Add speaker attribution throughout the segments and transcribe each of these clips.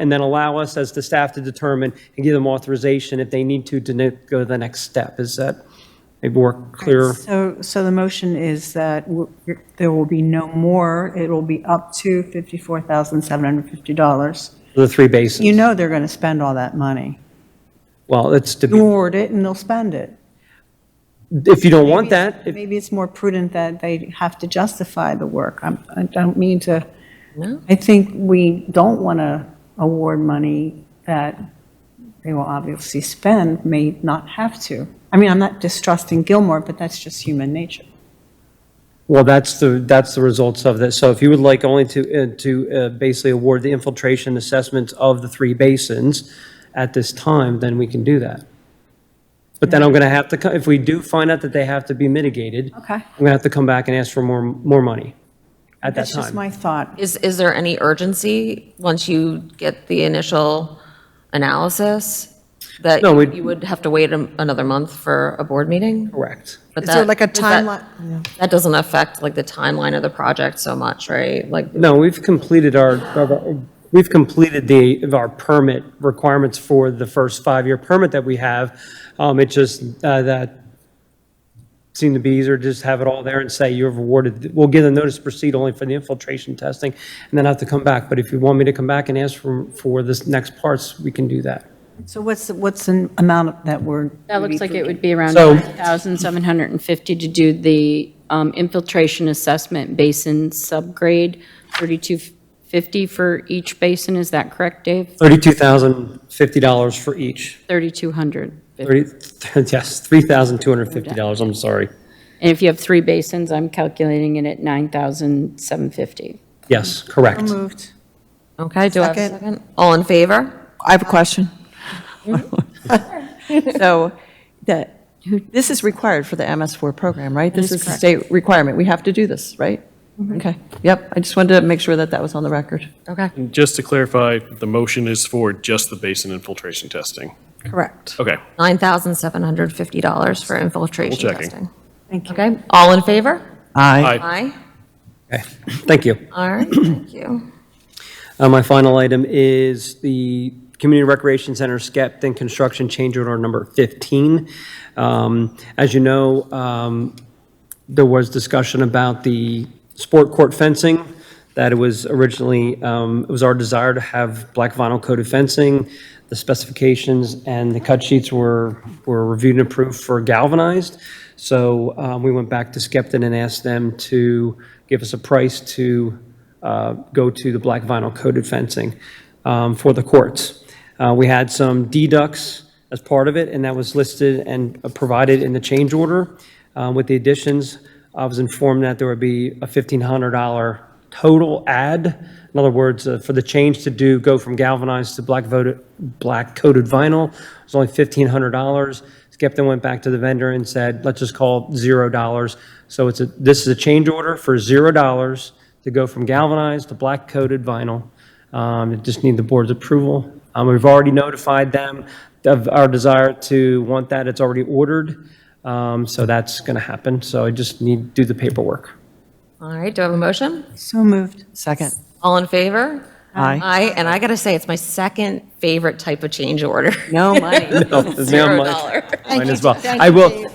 Speaker 1: and then allow us as the staff to determine and give them authorization if they need to, to ne- go to the next step. Is that maybe more clear?
Speaker 2: So, so the motion is that w- there will be no more, it will be up to $54,750.
Speaker 1: The three basins?
Speaker 2: You know they're going to spend all that money.
Speaker 1: Well, it's, to
Speaker 2: You
Speaker 1: be-
Speaker 2: award it and they'll spend it.
Speaker 1: if you don't
Speaker 2: Maybe
Speaker 1: want
Speaker 2: it's-
Speaker 1: that, if-
Speaker 2: Maybe it's more prudent that they have to justify the work. I'm- I don't mean to, I think we don't want to award money that they will obviously spend, may not have to. I mean, I'm not distrusting Gilmore, but that's just human nature.
Speaker 1: Well, that's the, that's the results of this. So if you would like only to, uh, to uh, basically award the infiltration assessments of the three basins at this time, then we can do that. But then I'm going to have to, co- if we do find out that they have to be mitigated, I'm
Speaker 2: Okay.
Speaker 1: going to have to come back and ask for more, more money at that
Speaker 2: That's just
Speaker 1: time.
Speaker 2: my thought.
Speaker 3: Is, is there any urgency, once you get the initial analysis, that
Speaker 1: No, we-
Speaker 3: you would have to wait a- another month for a board meeting?
Speaker 1: Correct.
Speaker 3: But
Speaker 4: Is there
Speaker 3: that-
Speaker 4: like a
Speaker 3: does that-
Speaker 4: timeline? Yeah.
Speaker 3: That doesn't affect like the timeline of the project so much, right? Like,
Speaker 1: No, we've completed our, our- we've completed the, of our permit requirements for the first five-year permit that we have. Um, It just, uh, that seemed to be easier, to just have it all there and say you've awarded, we'll give the notice to proceed only for the infiltration testing, and then have to come back. But if you want me to come back and ask for, for this next parts, we can do that.
Speaker 2: So what's, the- what's an amount that we're?
Speaker 5: That looks like it would be around
Speaker 1: So-
Speaker 5: 1,750 to do the um, infiltration assessment basin subgrade, 3250 for each basin, is that correct, Dave?
Speaker 1: $32,050 for each.
Speaker 5: 3,200. And
Speaker 1: 30, yes, $3,250, I'm sorry.
Speaker 5: if you have three basins, I'm calculating it at 9,750.
Speaker 1: Yes, correct.
Speaker 2: Moved.
Speaker 3: okay, do I have a
Speaker 4: Second.
Speaker 3: second? All in favor?
Speaker 4: I have a question. So that, this is required for the MS4 program, right? This is a state requirement. We have to do this, right? Okay. Yep. I just wanted to make sure that that was on the record.
Speaker 3: Okay.
Speaker 6: Just to clarify, the motion is for just the basin infiltration testing.
Speaker 4: Correct.
Speaker 6: Okay,
Speaker 3: $9,750 for infiltration
Speaker 6: Double checking.
Speaker 3: testing. Thank you. Okay, all in favor?
Speaker 4: Aye.
Speaker 6: aye.
Speaker 3: Aye.
Speaker 1: Okay, thank you.
Speaker 3: All right, thank you.
Speaker 1: Uh, My final item is the Community Recreation Center Skepton Construction Change Order Number 15. Um, As you know, um, there was discussion about the sport court fencing, that it was originally, um, it was our desire to have black vinyl coated fencing. The specifications and the cut sheets were, were reviewed and approved for galvanized. So um, we went back to Skepton and asked them to give us a price to uh, go to the black vinyl coated fencing um, for the courts. Uh, We had some deducts as part of it, and that was listed and uh, provided in the change order. Uh, With the additions, I was informed that there would be a $1,500 total add. In other words, uh, for the change to do, go from galvanized to black voted, black coated vinyl, it was only $1,500. Skepta went back to the vendor and said, let's just call it $0. So it's a, this is a change order for $0 to go from galvanized to black coated vinyl. Um, It just need the board's approval. Um, We've already notified them of our desire to want that. It's already ordered. Um, So that's going to happen. So I just need to do the paperwork.
Speaker 3: All right, do I have a motion?
Speaker 2: So moved.
Speaker 4: Second.
Speaker 3: All in favor?
Speaker 4: Aye.
Speaker 3: Aye, and I gotta say, it's my second favorite type of change order.
Speaker 4: No money.
Speaker 3: Zero dollar.
Speaker 1: Mine as well. I will,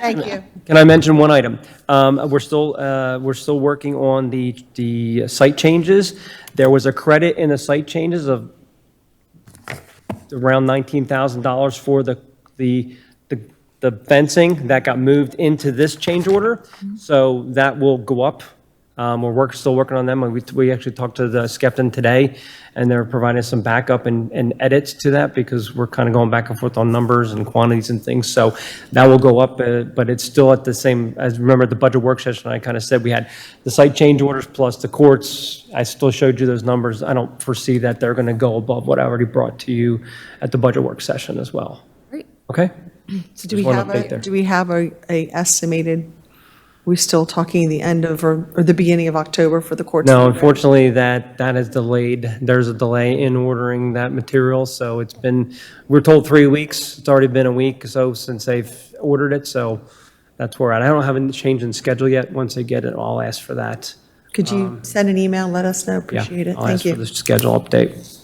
Speaker 7: Thank you.
Speaker 1: Can I mention one item? Um, We're still, uh, we're still working on the, the site changes. There was a credit in the site changes of around $19,000 for the, the, the- the fencing that got moved into this change order.
Speaker 7: Mm-hmm.
Speaker 1: So that will go up. Um, We're work, still working on them. We, we actually talked to the Skepton today, and they're providing some backup and, and edits to that because we're kind of going back and forth on numbers and quantities and things. So that will go up, uh, but it's still at the same, as remember at the budget work session, I kind of said we had the site change orders plus the courts. I still showed you those numbers. I don't foresee that they're going to go above what I already brought to you at the budget work session as well.
Speaker 3: Great.
Speaker 1: Okay?
Speaker 4: So do we
Speaker 1: Just one
Speaker 4: have
Speaker 1: update there.
Speaker 4: a, do we have a, a estimated, we still talking the end of, or or the beginning of October for the courts?
Speaker 1: No, unfortunately, that, that is delayed. There's a delay in ordering that material, so it's been, we're told three weeks. It's already been a week, so since they've ordered it, so that's where, I don't have a change in schedule yet. Once I get it, I'll ask for that.
Speaker 4: Could you send an email, let us know?
Speaker 1: Yeah,
Speaker 4: Appreciate it.
Speaker 1: I'll ask
Speaker 4: Thank you.
Speaker 1: for the schedule update.